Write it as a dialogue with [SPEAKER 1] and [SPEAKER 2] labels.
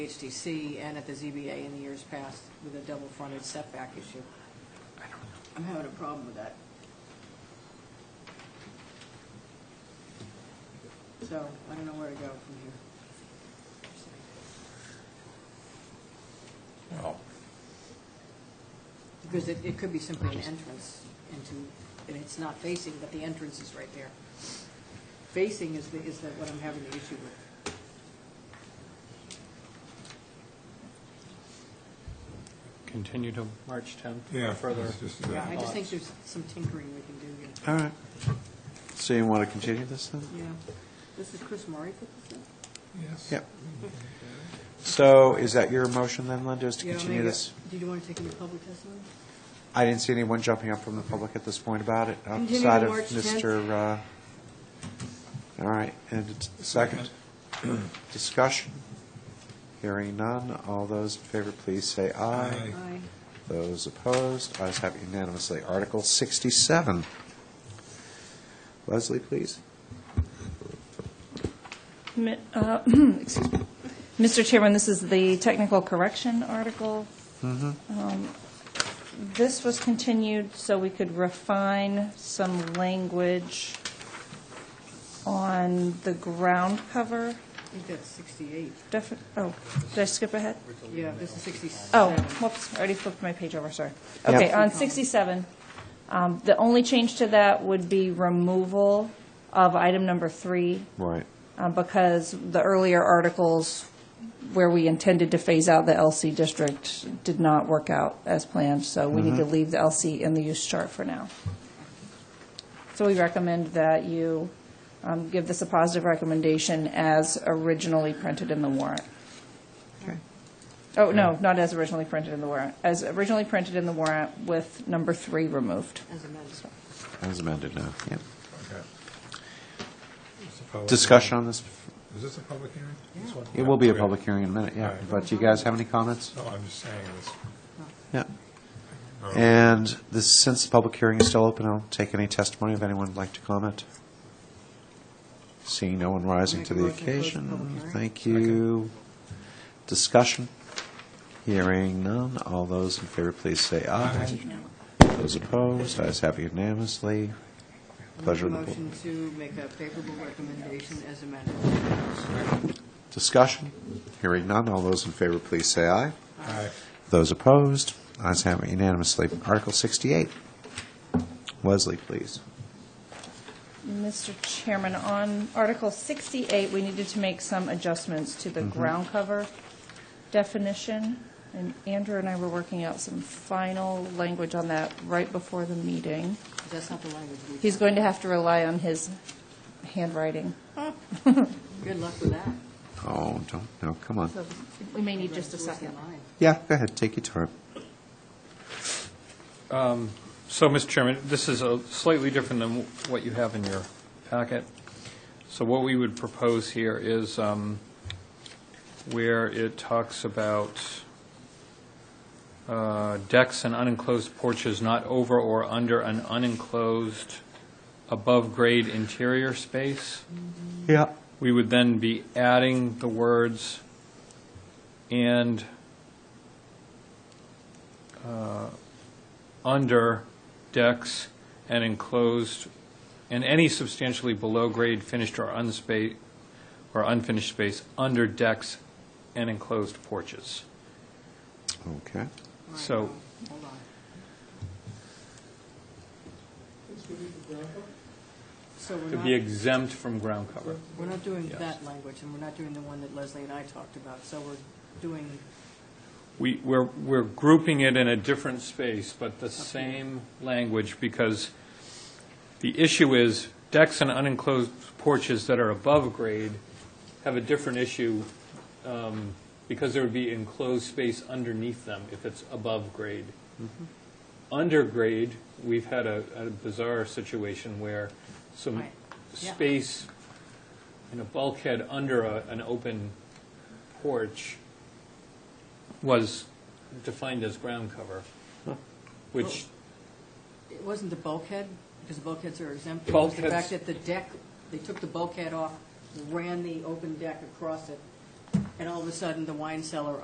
[SPEAKER 1] HDC and at the ZBA in the years past with a double fronted setback issue. I'm having a problem with that. So I don't know where to go from here.
[SPEAKER 2] Well,
[SPEAKER 1] Because it, it could be simply an entrance into, and it's not facing, but the entrance is right there. Facing is the, is the, what I'm having the issue with.
[SPEAKER 2] continue to March 10th.
[SPEAKER 3] Yeah,
[SPEAKER 2] Further.
[SPEAKER 3] it's just that.
[SPEAKER 1] Yeah, I just think there's some tinkering we can do here.
[SPEAKER 4] All right. So you want to continue this then?
[SPEAKER 1] Yeah, this is Chris Murray put this in?
[SPEAKER 3] Yes.
[SPEAKER 4] Yep. So is that your motion then, Linda, is to
[SPEAKER 1] Yeah,
[SPEAKER 4] continue
[SPEAKER 1] maybe-
[SPEAKER 4] this?
[SPEAKER 1] Did you want to take any public testimony?
[SPEAKER 4] I didn't see anyone jumping up from the public at this point about it,
[SPEAKER 1] Continue to
[SPEAKER 4] outside of
[SPEAKER 1] March 10th.
[SPEAKER 4] Mr., uh, all right, and it's- second, discussion. Hearing none, all those in favor, please say aye.
[SPEAKER 3] Aye.
[SPEAKER 1] Aye.
[SPEAKER 4] Those opposed, ayes have unanimously. Article 67. Leslie, please.
[SPEAKER 5] Mi- uh, excuse me. Mr. Chairman, this is the technical correction article. Um, This was continued so we could refine some language on the ground cover.
[SPEAKER 1] I think that's 68.
[SPEAKER 5] Defi- Oh, did I skip ahead?
[SPEAKER 1] Yeah, this is 67.
[SPEAKER 5] Oh, whoops, I already flipped my page over, sorry.
[SPEAKER 4] Yep.
[SPEAKER 5] Okay, on 67, um, the only change to that would be removal of item number three
[SPEAKER 4] Right.
[SPEAKER 5] uh, because the earlier articles where we intended to phase out the LC district did not work out as planned, so we need to leave the LC in the use chart for now. So we recommend that you um, give this a positive recommendation as originally printed in the warrant.
[SPEAKER 4] Okay.
[SPEAKER 5] Oh, no, not as originally printed in the warrant, as originally printed in the warrant with number three removed.
[SPEAKER 1] As amended.
[SPEAKER 4] As amended now, yep.
[SPEAKER 3] Okay. It's a public
[SPEAKER 4] Discussion on this?
[SPEAKER 3] hearing. Is this a public hearing? This one?
[SPEAKER 4] It will be a
[SPEAKER 3] Okay.
[SPEAKER 4] public hearing in a minute,
[SPEAKER 3] All
[SPEAKER 4] yeah.
[SPEAKER 3] right.
[SPEAKER 4] But do you guys have any comments?
[SPEAKER 3] No, I'm just saying this.
[SPEAKER 4] Yeah.
[SPEAKER 3] Oh.
[SPEAKER 4] And this, since the public hearing is still open, I'll take any testimony if anyone would like to comment. Seeing no one rising
[SPEAKER 1] Make
[SPEAKER 4] to
[SPEAKER 1] a
[SPEAKER 4] the
[SPEAKER 1] motion to close the public
[SPEAKER 4] occasion,
[SPEAKER 1] hearing.
[SPEAKER 4] thank you. Discussion? Hearing none. All those in favor, please say aye. Those opposed, ayes have unanimously. Pleasure of the board.
[SPEAKER 1] Motion to make a favorable recommendation as amended.
[SPEAKER 4] Discussion? Hearing none. All those in favor, please say aye.
[SPEAKER 3] Aye.
[SPEAKER 4] Those opposed, ayes have it unanimously. Article 68. Leslie, please.
[SPEAKER 5] Mr. Chairman, on Article 68, we needed to make some adjustments to the ground cover definition, and Andrew and I were working out some final language on that right before the meeting.
[SPEAKER 1] That's not the language we...
[SPEAKER 5] He's going to have to rely on his handwriting,
[SPEAKER 1] Good luck with that.
[SPEAKER 4] Oh, don't, no, come on.
[SPEAKER 5] so we may need just a
[SPEAKER 1] It's worse
[SPEAKER 5] second.
[SPEAKER 1] than mine.
[SPEAKER 4] Yeah, go ahead, take your time.
[SPEAKER 2] So, Mr. Chairman, this is a slightly different than what you have in your packet. So what we would propose here is um, where it talks about uh, decks and unenclosed porches not over or under an unenclosed above-grade interior space.
[SPEAKER 4] Yeah.
[SPEAKER 2] we would then be adding the words and uh, under decks and enclosed, and any substantially below-grade finished or unspa, or unfinished space under decks and enclosed porches.
[SPEAKER 4] Okay.
[SPEAKER 1] All right,
[SPEAKER 2] So-
[SPEAKER 1] now, Hold on. So we're
[SPEAKER 2] To be
[SPEAKER 1] not,
[SPEAKER 2] exempt from ground cover.
[SPEAKER 1] we're not doing
[SPEAKER 2] Yes.
[SPEAKER 1] that language, and we're not doing the one that Leslie and I talked about, so we're doing,
[SPEAKER 2] We, we're, we're grouping it in a different space, but the same language, because the issue is decks and unenclosed porches that are above grade have a different issue, um, because there would be enclosed space underneath them if it's above grade. Under grade, we've had a a bizarre situation where some
[SPEAKER 1] Right. Yeah.
[SPEAKER 2] space in a bulkhead under a- an open porch was defined as ground cover, which,
[SPEAKER 1] it wasn't the bulkhead, because the bulkheads are exempt. It was The
[SPEAKER 2] Bulkheads.
[SPEAKER 1] fact that the deck, they took the bulkhead off, ran the open deck across it, and all of a sudden, the wine cellar